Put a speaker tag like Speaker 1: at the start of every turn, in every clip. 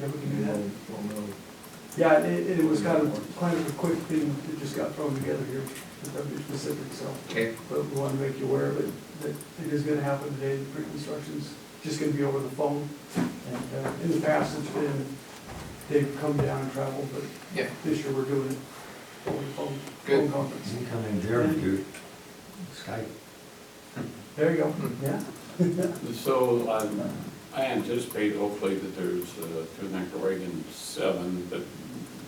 Speaker 1: Yeah, we can do that.
Speaker 2: We'll we'll know.
Speaker 1: Yeah, it, it was kind of, kind of a quick thing that just got thrown together here, without being specific, so.
Speaker 3: Okay.
Speaker 1: But we want to make you aware of it, that it is gonna happen today, the pre-construction's just gonna be over the phone. And, uh, in the past, it's been, they've come down and traveled, but
Speaker 3: Yeah,
Speaker 1: this year we're doing it over the phone, phone
Speaker 3: Good.
Speaker 1: conference.
Speaker 4: You come in there and do Skype.
Speaker 1: There you go,
Speaker 3: Hmm.
Speaker 1: yeah.
Speaker 5: So um, I anticipate hopefully that there's, uh, through Nicaragua Reagan seven, but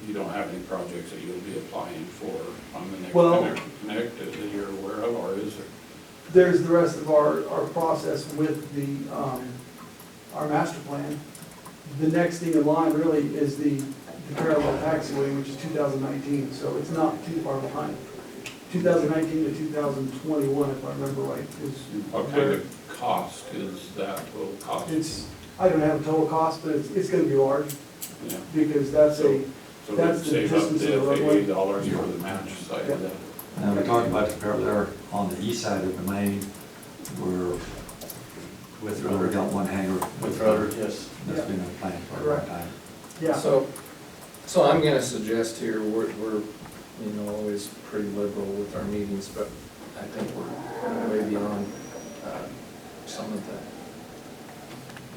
Speaker 5: you don't have any projects that you'll be applying for on the next
Speaker 1: Well-
Speaker 5: connect- connect that you're aware of, or is there?
Speaker 1: There's the rest of our, our process with the, um, our master plan. The next thing in line really is the the parallel taxiway, which is 2019, so it's not too far behind. 2019 to 2021, if I remember right, is
Speaker 5: What kind
Speaker 1: where,
Speaker 5: of cost is that will cost?
Speaker 1: it's, I don't have a total cost, but it's, it's gonna be large,
Speaker 5: Yeah.
Speaker 1: because that's a,
Speaker 5: So
Speaker 1: that's
Speaker 5: we'd
Speaker 1: the
Speaker 5: save up
Speaker 1: distance of
Speaker 5: the
Speaker 1: the roadway.
Speaker 5: FAA dollars for the match side of
Speaker 1: Yeah.
Speaker 5: that.
Speaker 4: Now, we're talking about the parallel on the east side of the main where
Speaker 2: With
Speaker 4: we got one hangar.
Speaker 2: With rudder, yes.
Speaker 4: That's been a plan for a long
Speaker 1: Correct.
Speaker 4: time.
Speaker 1: yeah.
Speaker 3: So, so I'm gonna suggest here, we're, we're, you know, always pretty liberal with our meetings, but I think we're way beyond, uh, some of the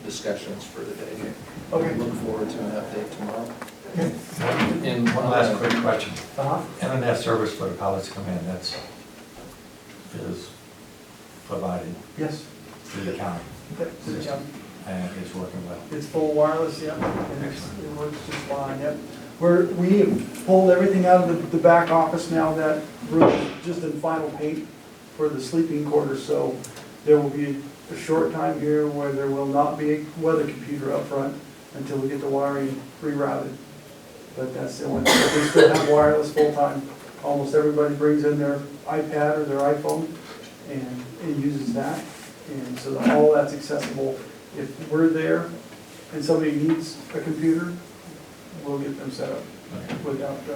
Speaker 3: discussions for today.
Speaker 1: Okay.
Speaker 3: Look forward to an update tomorrow.
Speaker 1: Okay.
Speaker 3: And
Speaker 4: One last quick question.
Speaker 1: Uh-huh.
Speaker 4: Internet service for the pilots to come in, that's, is provided
Speaker 1: Yes.
Speaker 4: through the county
Speaker 1: Okay. Yeah.
Speaker 4: and it's working well.
Speaker 1: It's full wireless, yep, and it's, it works just fine, yep. We're, we have pulled everything out of the, the back office now, that room is just in final paint for the sleeping quarters, so there will be a short time here where there will not be a weather computer up front until we get the wiring rerouted. But that's the only, thing. we still have wireless full-time. Almost everybody brings in their iPad or their iPhone and, and uses that. And so that- all that's accessible. If we're there and somebody needs a computer, we'll get them set up without the.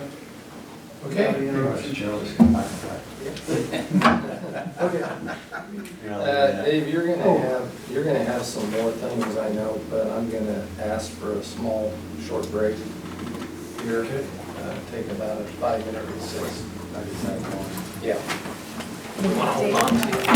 Speaker 3: Okay.
Speaker 1: without any interruption.
Speaker 4: Gerald's come back and back.
Speaker 1: Okay,
Speaker 4: You know,
Speaker 3: Uh, Dave, you're
Speaker 1: Oh.
Speaker 3: gonna have, you're gonna have some more things, I know, but I'm gonna ask for a small, short break here. Uh, Take about a five minute recess. Yeah.
Speaker 6: Hold on to